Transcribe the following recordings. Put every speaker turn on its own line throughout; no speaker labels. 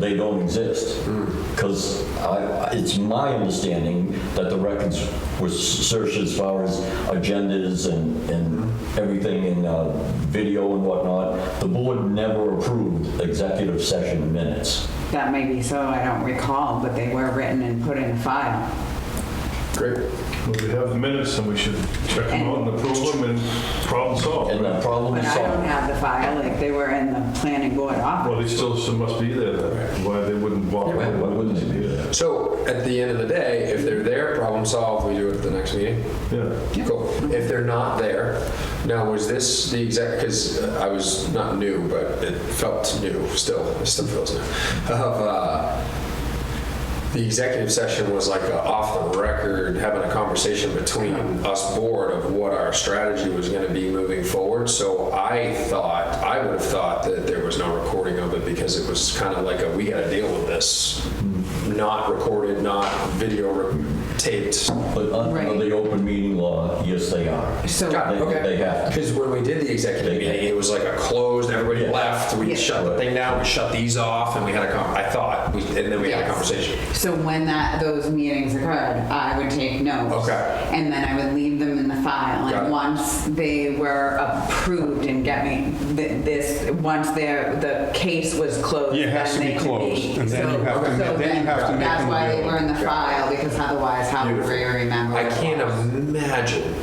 they don't exist. Because it's my understanding that the records were searched as far as agendas and, and everything in uh, video and whatnot. The board never approved executive session minutes.
That may be so, I don't recall, but they were written and put in a file.
Great.
Well, we have the minutes, and we should check them out and approve them, and problem solved.
And the
Oh,
problem
But
is
I don't
solved.
have the file, like they were in the planning board office.
Well, they still should- must be there, then. why they wouldn't walk,
Yeah,
why
why wouldn't
wouldn't they be there?
So at the end of the day, if they're there, problem solved, we do it at the next meeting.
Yeah,
Cool. If they're not there, now was this the exact, because I was not new, but it felt new still, it still feels new. Of, uh, the executive session was like a off the record, having a conversation between us board of what our strategy was going to be moving forward. So I thought, I would have thought that there was no recording of it because it was kind of like a, we got to deal with this. Not recorded, not video re- taped.
But under
Right.
the open meeting law, yes, they are.
So,
Got it,
They-
okay.
they have to.
Because when we did the executive meeting, it was like a closed, everybody
Yeah.
left, we
Yeah.
shut the thing down, we shut these off, and we had a con, I thought, we- and then we had a
Yes.
conversation.
so when that, those meetings occurred, I would take notes.
Okay.
And then I would leave them in the file.
Got it.
And once they were approved and get me, th- this, once their, the case was closed.
Yeah, it has
then
to be
they could
closed, and then
so-
you have to
so
ma- then you have to make
That's
them
why they
available.
were in the
Yeah.
file, because otherwise how would
Beautiful.
we remember?
I
it?
can't imagine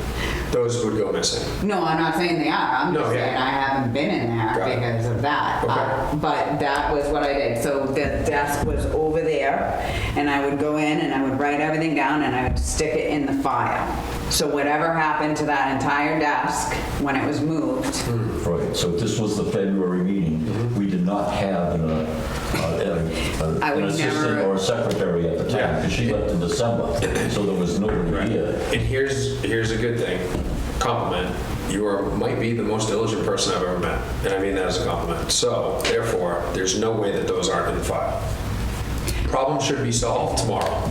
those would go missing.
No, I'm not saying they are. I'm just
No, yeah.
saying I haven't been in there
Got it.
because of that.
Okay.
Uh, But that was what I did. So the desk was over there and I would go in and I would write everything down and I would stick it in the file. So whatever happened to that entire desk when it was moved,
Hmm.
Right, so if this was the February meeting, we did not have an, uh, uh,
I
an
would
assistant
never-
or a secretary at the time,
Yeah.
because she left in December, so there was nobody here.
And here's, here's a good thing, compliment, you are, might be the most diligent person I've ever met, and I mean that as a compliment. So therefore, there's no way that those aren't in the file. Problem should be solved tomorrow.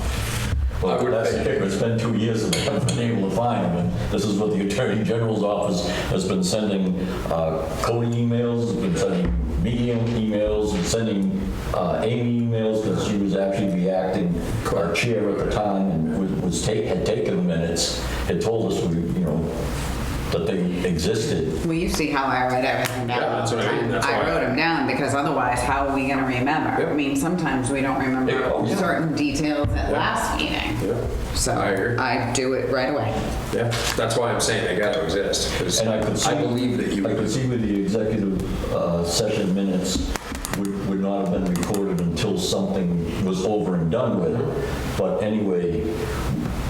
I
Well,
would
that's the
think-
kicker, it's been two years and they haven't been able to find him, and this is what the Attorney General's office has been sending uh, Cody emails, been sending me emails, and sending uh, Amy emails, because she was actually the acting uh, chair at the time, and was- was take, had taken the minutes, had told us, we, you know, that they existed.
well, you see how I write everything down.
Yeah, that's what I mean. That's
I
why-
wrote them down because otherwise how are we going to remember? I
Yep.
mean, sometimes we don't
Yeah, oh,
remember
yeah.
certain details at last meeting.
Yeah,
So
I agree.
I do it right away.
yeah, that's why I'm saying they gotta exist, because
And I could see.
I believe that you.
I could see where the executive uh, session minutes would, would not have been recorded until something was over and done with. But anyway,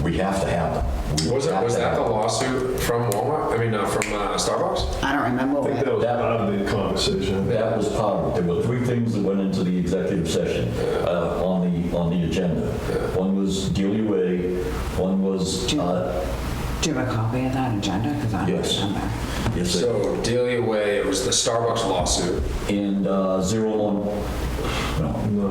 we have to have them. We
Was that,
have
was
to
that
have
the
them.
lawsuit from Walmart? I mean, uh, from uh, Starbucks?
I don't remember
I
what.
think that was part of the conversation.
That was part of it. There were three things that went into the executive session uh, on the, on the agenda. One was DUA, one was, uh,
Do you have a copy of that agenda? Because I don't
Yes.
remember.
yes, sir.
So Delia Way, it was the Starbucks lawsuit.
and uh, zero one, no,
No.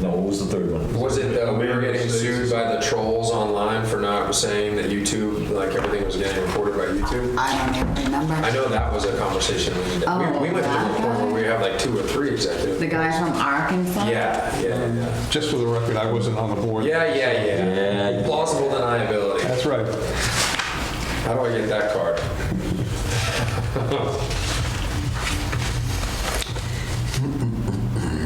no, what was the third one?
Was it uh, we were getting sued by the trolls online for not saying that YouTube, like everything was getting reported by YouTube?
I don't even
I
remember.
know that was a conversation we did.
Oh,
we, we went
that
through a point
guy?
where we have like two or three executives.
The guy from Arkansas?
Yeah, yeah, yeah,
Just for the record, I wasn't on the board.
yeah, yeah, yeah.
Yeah.
Plausible deniability.
That's right.
How do I get that card?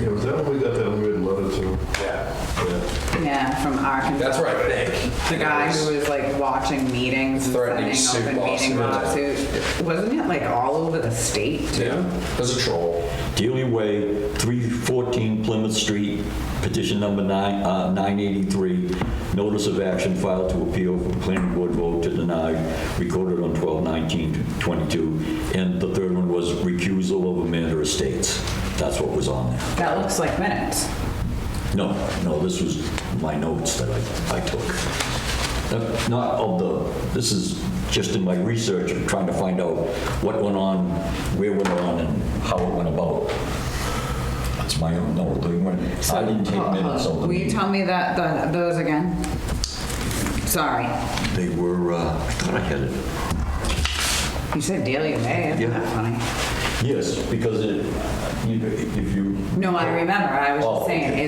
Yeah, was that when we got that weird letter to?
Yeah,
Yeah.
Yeah, from Arkansas.
that's what I think.
The guy who was like watching meetings and
Threatening
sending
suit
open meeting
lawsuit.
lawsuits. Wasn't it like all over the state too?
Yeah, was a troll.
Dealey Way, 314 Plymouth Street, petition number nine uh, 983, notice of action filed to appeal from planning board vote to deny, recorded on 12/19/22. And the third one was recusal of Amanda Estates. That's what was on there.
That looks like minutes.
No, no, this was my notes that I I took. Not of the, this is just in my research, of trying to find out what went on, where went on, and how it went about. That's my own, no, they weren't- I didn't take minutes of
Will uh, you
them.
tell me that, the- those again? Sorry.
They were, uh, I thought I had it.
You said Delia May, isn't
Yeah.
that funny?
Yes, because it, you know, if you.
No, I remember. I was
Oh,
just saying,
okay.